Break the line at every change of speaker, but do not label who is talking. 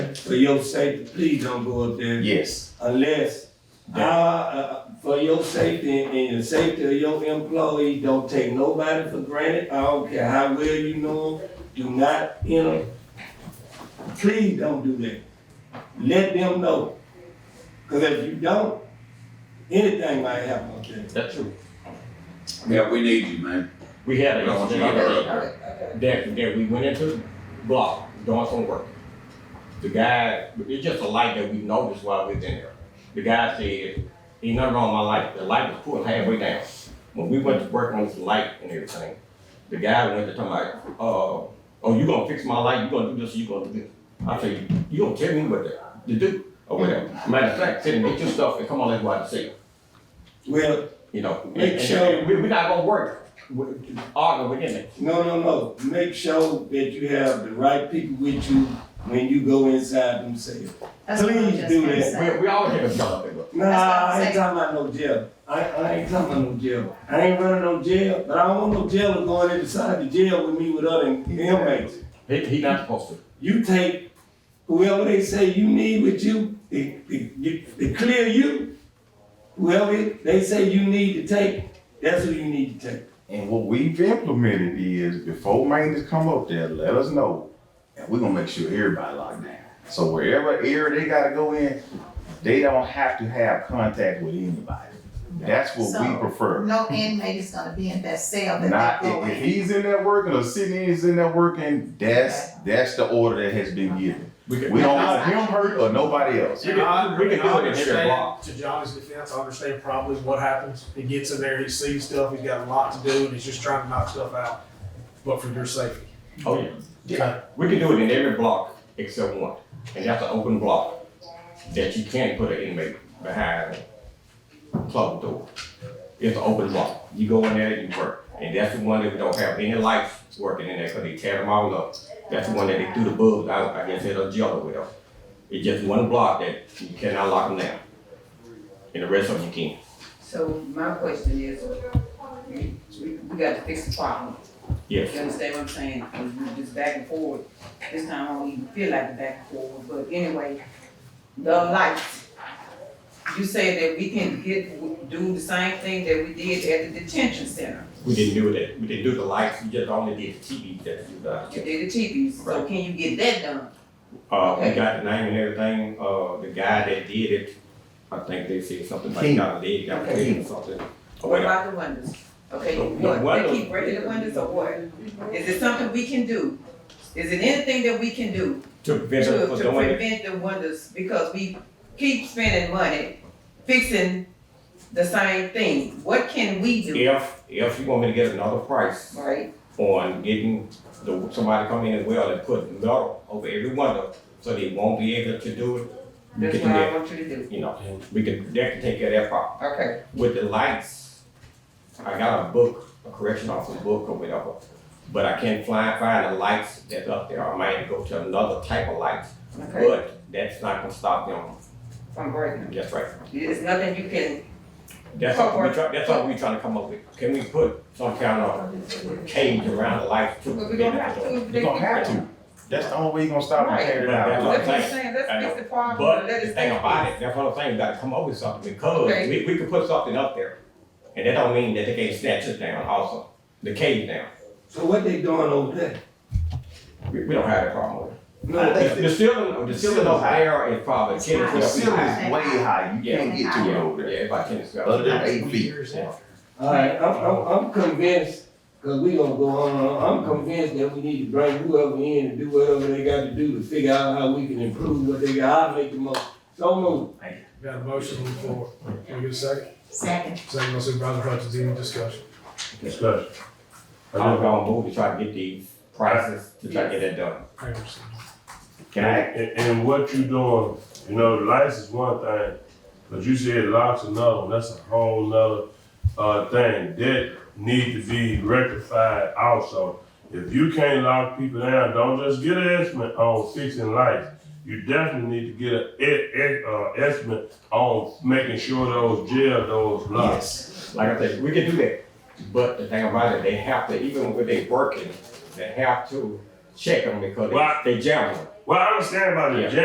saying? For your safety, please don't go up there
Yes,
unless, uh, uh, for your safety and and the safety of your employees, don't take nobody for granted. I don't care how well you know them, do not, you know, please don't do that. Let them know. Cause if you don't, anything might happen up there.
That's true.
Yeah, we need you, man.
We had
We
a
don't want you
incident
to-
that, that, that we went into the block doing some work. The guy, it's just a light that we noticed while we was in there. The guy said, ain't nothing wrong with my light, the light was pulled halfway down. When we went to work on this light and everything, the guy went to tell my, uh, oh, you gonna fix my light, you gonna do this, you gonna do this. I said, you gonna tell me what to, to do, or whatever. Matter of fact, sit and get your stuff and come on, let's go out and see.
Well,
You know,
Make
and,
sure-
and we, we're not gonna work, with- argue within it.
no, no, no. Make sure that you have the right people with you when you go inside themselves.
That's what I
Please
just
do
gonna
that.
say.
We, we always have a job to do.
Nah,
That's what I'm
I ain't
saying.
talking about no jail. I, I ain't talking about no jail. I ain't running no jail, but I don't want no jailer going inside the jail with me with other inmates.
He, he not supposed to.
You take whoever they say you need with you, they, they, you- they clear you. Whoever they say you need to take, that's who you need to take.
and what we've implemented is before maintenance come up there, let us know. And we're gonna make sure everybody locked down. So wherever area they gotta go in, they don't have to have contact with anybody. That's what we
So,
prefer.
No inmate is gonna be in that cell that
Not,
they go
if, if
in.
he's in there working or sitting in, he's in there working, that's, that's the order that has been given.
can-
We don't want him hurt or nobody else.
We can- we can do it in every block.
To Johnny's defense, I understand probably what happens. He gets in there, he sees stuff, he's got a lot to do, and he's just trying to knock stuff out. But for your safety.
Oh, yeah. We can do it in every block except one, and that's an open block that you can't put an inmate behind a closed door. It's an open block. You go in there and you work, and that's the one that we don't have any lights working in there because they tear them all up. That's the one that they threw the bugs out. I guess they're jello with them. It's just one block that you cannot lock them down, and the rest of them you can.
So my question is, we, we we got to fix the problem.
Yes.
You understand what I'm saying? 'Cause we just back and forth. This time I don't even feel like the back and forth, but anyway, the lights. You say that we can get, do the same thing that we did at the detention center.
We didn't do that. We didn't do the lights. We just only did the TV that you got.
You did the TVs, so
Right.
can you get that done?
Uh, we
Okay.
got the name and everything. Uh, the guy that did it, I think they said something about
King.
got a leg, got a leg or something. Or
What
whatever.
about the windows? Okay,
Oh, The
what,
windows.
they keep breaking the windows or what? Is it something we can do? Is it anything that we can do?
To prevent her
to,
from
to
doing it.
prevent the wonders, because we keep spending money fixing the same thing. What can we do,
If, if you want me to get another price
right?
on getting the, somebody come in as well and put metal over every window, so they won't be able to do it. We
That's
can do
what I
that,
want you to do,
you know, we can, that can take care of that problem.
okay.
with the lights, I got a book, a correction officer book or whatever, but I can't find, find the lights that's up there. I might go to another type of lights,
Okay,
but that's not gonna stop them.
I'm breaking.
That's right.
There's nothing you can,
That's what we try, that's what we trying to come up with. Can we put some kind of cage around the lights too?
but we don't have to.
You gonna have to. That's the only way you gonna stop them tearing it
Right.
down.
That's what I'm saying, let's fix the problem,
But
and let
the
it
thing
stay.
about it, that's what I'm saying, we gotta come up with something because
Okay.
we, we could put something up there. And that don't mean that they can't snatch it down also, the cage down.
So what they doing over there?
We, we don't have that problem with it.
No,
I
they-
The the ceiling, the ceiling over there is probably ten to
The
twelve feet
ceiling
high.
is way high, you can't get to it over
Yeah,
there.
it's about ten to
Other
twelve.
than eight feet.
Years
Yeah.
after.
all right, I'm, I'm, I'm convinced, cause we gonna go on, and on. I'm convinced that we need to bring whoever in and do whatever they got to do to figure out how we can improve what they got, I'll make the most. So move.
Got a motion on the floor. Can we get a second?
Second,
Second by Supervisor Hutchins, any discussion?
Discussion.
I'm gonna move to try to get these prices to try to get that done.
Anderson.
Can I?
And, and what you doing, you know, the lights is one thing, but you said locks another one, that's a whole nother, uh, thing. That need to be rectified also. If you can't lock people down, don't just get an estimate on fixing lights. You definitely need to get an e- e- uh, estimate on making sure those jail doors locked.
Yes. Like I said, we can do that, but the thing about it, they have to, even when they working, they have to check them because
Right.
they, they jam them.
Well, I understand about the
Yeah.
jail